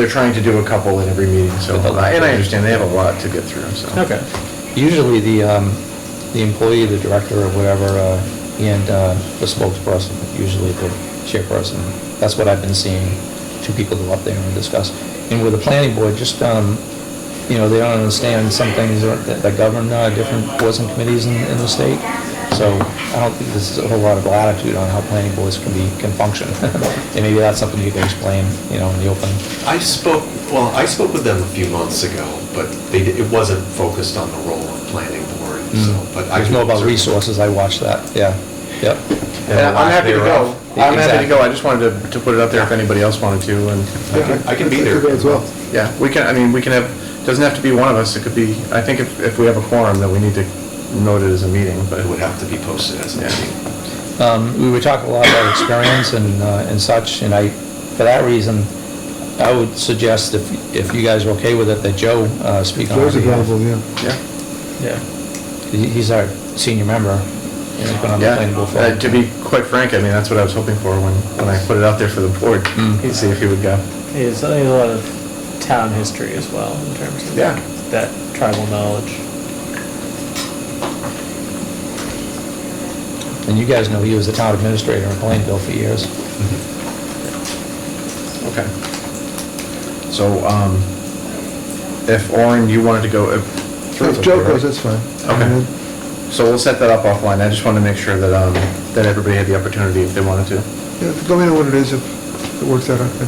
They're trying to do a couple at every meeting, so, and I understand, they have a lot to get through, so. Okay. Usually the, um, the employee, the director or whatever, uh, and, uh, the spokesperson, usually the chairperson. That's what I've been seeing, two people go up there and discuss. And with the planning board, just, um, you know, they don't understand some things that that govern, uh, different boards and committees in, in the state. So I don't think there's a whole lot of latitude on how planning boards can be, can function. And maybe that's something you can explain, you know, in the open. I spoke, well, I spoke with them a few months ago, but they, di- it wasn't focused on the role of planning board, so, but I. There's no about certainly- resources, I watched that, yeah, yep. And Uh, I'm happy to go. I'm happy Exactly. to go, I just wanted to, to put it out there if anybody else wanted to, and, I can- I can be there. As well. yeah, we can, I mean, we can have, doesn't have to be one of us, it could be, I think if, if we have a quorum, then we need to note it as a meeting, but. It would have to be posted as a Yeah. meeting. Um, We were talking a lot about experience and, uh, and such, and I, for that reason, I would suggest if, if you guys are okay with it, that Joe uh, speak on our Those are behalf. available, yeah. Yeah. Yeah. He- He's our senior member, and he's been on the Yeah, planning board for. uh, to be quite frank, I mean, that's what I was hoping for when, when I put it out there for the board, Mm. and see if he would go. There's a lot of town history as well in terms of Yeah. that tribal knowledge. And you guys know he was the town administrator in Plainville for years. Okay. So, um, if Orin, you wanted to go, if. If Joe goes, that's fine. Uh, Okay. And Um, then- So we'll set that up offline, I just wanted to make sure that, um, that everybody had the opportunity if they wanted to. Yeah, Let me know what it is, if it works out, okay.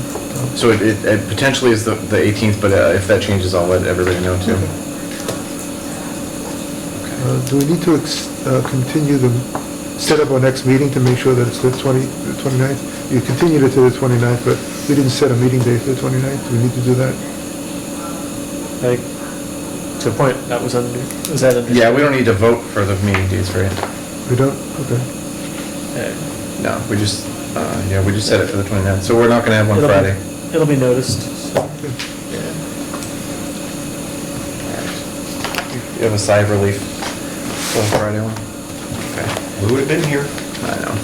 So it, it it potentially is the, the eighteenth, but uh, if that changes, I'll let everybody know too. Uh, Do we need to ex- uh, continue the, set up our next meeting to make sure that it's the 20, the 29th? You continued it to the 29th, but we didn't set a meeting day for the 29th. Do we need to do that? Like, to a point, that was under, was that under? Yeah, we don't need to vote for the meeting dates, right? We don't? Okay. Uh, No, we just, uh, yeah, we just set it for the 29th, so we're not gonna have one it'll be- Friday. It'll be noticed, so, You have a sigh of relief for the Friday one? Okay, We would have been here. I know.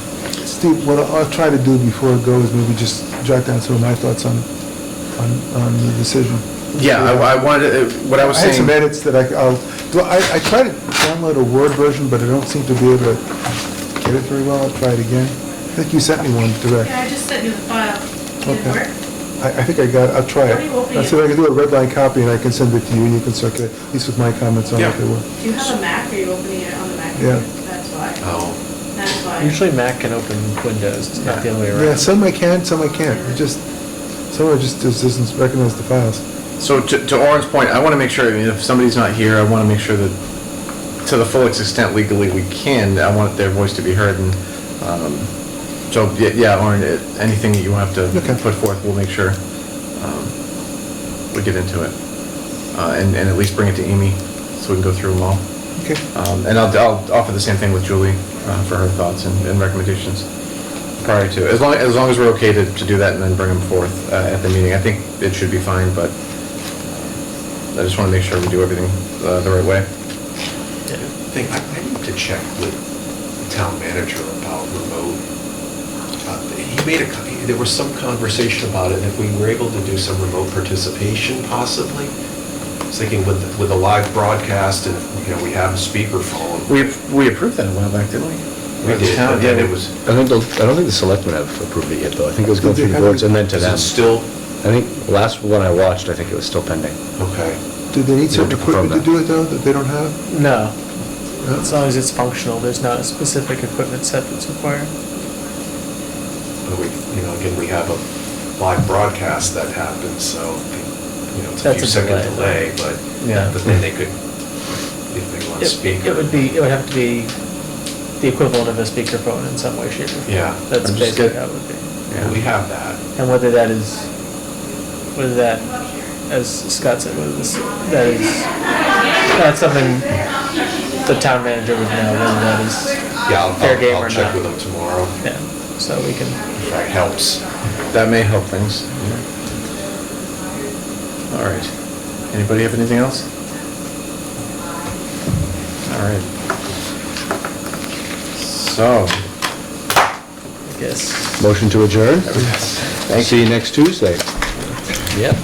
Steve, what I'll I'll try to do before it goes, maybe just jot down some of my thoughts on, on, on the decision. Yeah, I, I wanted, to- what I was had some saying, edits that I, I'll, well, I, I tried to download a Word version, but I don't seem to be able to get it very well. I'll try it again. I think you sent me one direct. Yeah, I just sent you the file. Did it Okay. work? I, I think I got, I'll try Let me it. open I it. said I could do a red line copy and I can send it to you and you can circulate, at least with my comments on Yeah. what they were. Do you have a Mac, or are you opening it on the Mac? Yeah. That's why, Oh, that's why. usually Mac can open Windows, it's not the other way around. Yeah, some I can, some I can't. It just, some I just, just doesn't recognize the files. so to, to Orin's point, I wanna make sure, I mean, if somebody's not here, I wanna make sure that to the full extent legally we can, I want their voice to be heard and, um, so, y- yeah, Orin, it- anything that you have to Okay. put forth, we'll make sure, um, we get into it. Uh, and, and at least bring it to Amy, so we can go through them all. Okay. Um, And I'll, I'll offer the same thing with Julie uh, for her thoughts and and recommendations prior to, as long, as long as we're okay to, to do that and then bring them forth uh, at the meeting. I think it should be fine, but I just want to make sure we do everything uh, the right way. I think, I I need to check with the town manager about remote. Uh, He made a, co- there was some conversation about it, and if we were able to do some remote participation possibly. I was thinking with, with a live broadcast and, you know, we have a speakerphone. We, we approved that a while back, didn't we? We did, but then it was, I don't, I don't think the selectmen have approved it yet, though. I think it was going through the boards and then to is them. it still, I think, the last one I watched, I think it was still pending. okay. Do they need certain Yeah, confirm equipment to that. do it though, that they don't have? No, No? as long as it's functional, there's not a specific equipment set that's required. But we, you know, again, we have a live broadcast that happens, so, you know, it's a That's a few second delay, delay. but, Yeah. but then they could, if they want to It- speak. It would be, it would have to be the equivalent of a speakerphone in some way, shape, or form. Yeah. That's Or just basically get- how it would be. Yeah. We have that. And whether that is, whether that, as Scott said, whether this, that is, that's something the town manager would know, whether that is, Yeah, I'll, Fair game I'll- I'll or check with not. them tomorrow, yeah, so we can, if that helps. That may help things. All right. Anybody have anything else? All right. So, I guess. Motion to adjourn? thank you. See you next Tuesday. Yep.